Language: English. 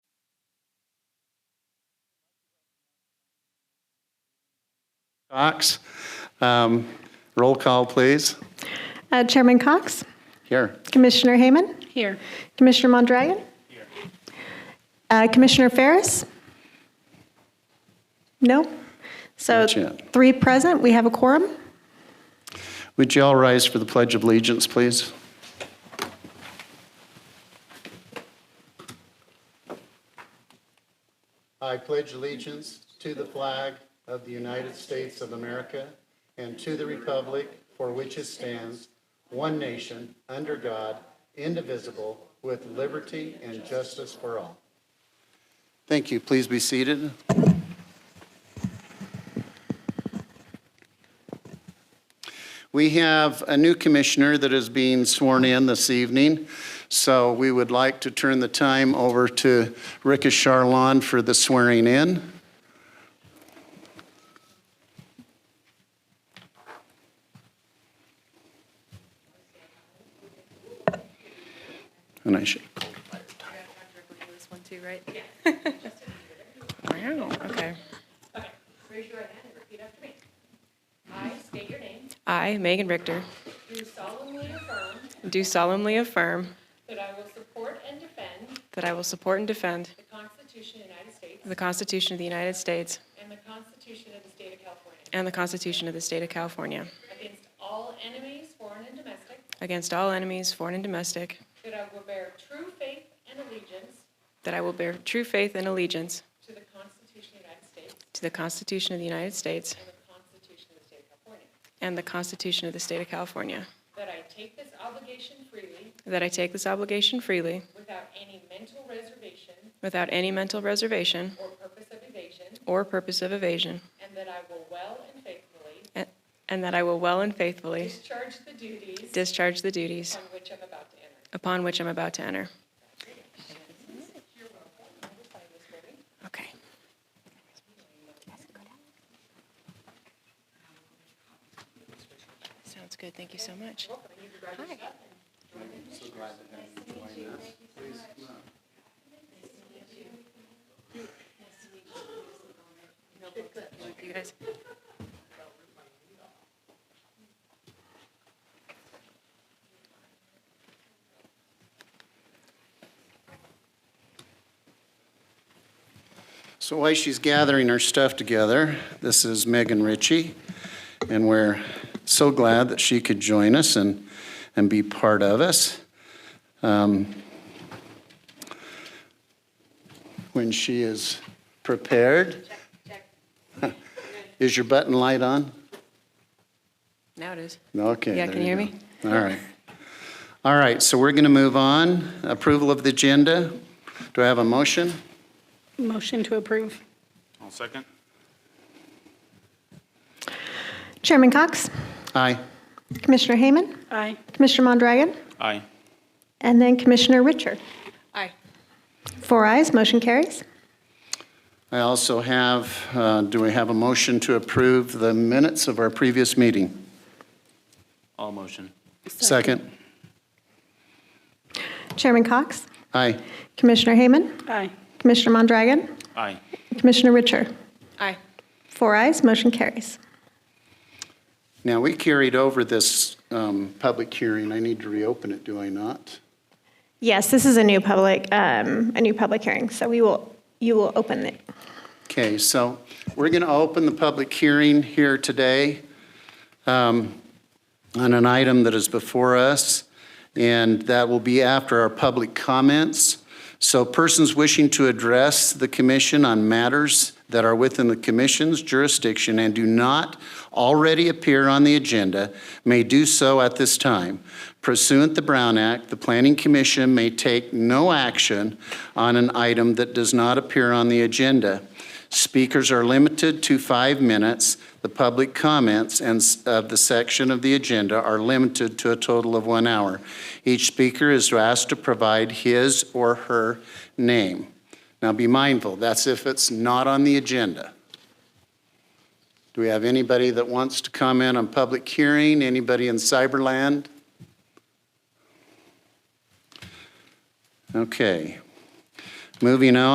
Cox. Um, Roll call, please. Uh, Chairman Cox, Here. Commissioner Hayman, Here. Commissioner Mondragon, Uh, Commissioner Ferris? No? So Not yet. three present, we have a quorum. Would you all rise for the Pledge of Allegiance, please? I pledge allegiance to the flag of the United States of America and to the republic for which it stands, one nation, under God, indivisible, with liberty and justice for all. Thank you. Please be seated. We have a new commissioner that is being sworn in this evening, so we would like to turn the time over to Rika Charlon for the swearing in. And I should, This one too, right? Wow, okay. Okay, raise your right hand and repeat after me. I state your name, I, Megan Richter, do solemnly affirm do solemnly affirm that I will support and defend that I will support and defend the Constitution of the United States the Constitution of the United States and the Constitution of the State of California and the Constitution of the State of California against all enemies, foreign and domestic, against all enemies, foreign and domestic, that I will bear true faith and allegiance that I will bear true faith and allegiance to the Constitution of the United States to the Constitution of the United States and the Constitution and the Constitution of of the State of California, the State of California, that I take this obligation freely that I take this obligation freely without any mental reservation without any mental reservation or purpose of evasion, or purpose of evasion, and that I will well and faithfully a- and that I will well and faithfully discharge the duties discharge the duties on which I'm about to enter. upon which I'm about to enter. Okay. Sounds good, thank you so much. You guys. so while she's gathering her stuff together, this is Megan Ritchie, and we're so glad that she could join us and, and be part of us. Um, when she is prepared. Is your button light on? Now it is. Okay. Yeah, can there you hear go. me? All right. All right, so we're going to move on. Approval of the agenda. Do I have a motion? Motion to approve. I'll second. Chairman Cox, Aye. Commissioner Hayman, Aye. Commissioner Mondragon, Aye. and then Commissioner Richard. Aye. Four ayes, motion carries. I also have, uh, do we have a motion to approve the minutes of our previous meeting? All motion. Second. Chairman Cox, Aye. Commissioner Hayman, Aye. Commissioner Mondragon, Aye. Commissioner Richard. Aye. Four ayes, motion carries. Now, we carried over this um, public hearing. I need to reopen it, do I not? Yes, this is a new public, um, a new public hearing, so we will, you will open it. Okay, so we're going to open the public hearing here today um, on an item that is before us, and that will be after our public comments. So persons wishing to address the commission on matters that are within the commission's jurisdiction and do not already appear on the agenda may do so at this time. Pursuant to Brown Act, the Planning Commission may take no action on an item that does not appear on the agenda. Speakers are limited to five minutes. The public comments and s- of the section of the agenda are limited to a total of one hour. Each speaker is asked to provide his or her name. Now, be mindful, that's if it's not on the agenda. Do we have anybody that wants to comment on public hearing? Anybody in cyberland? Okay. Moving on.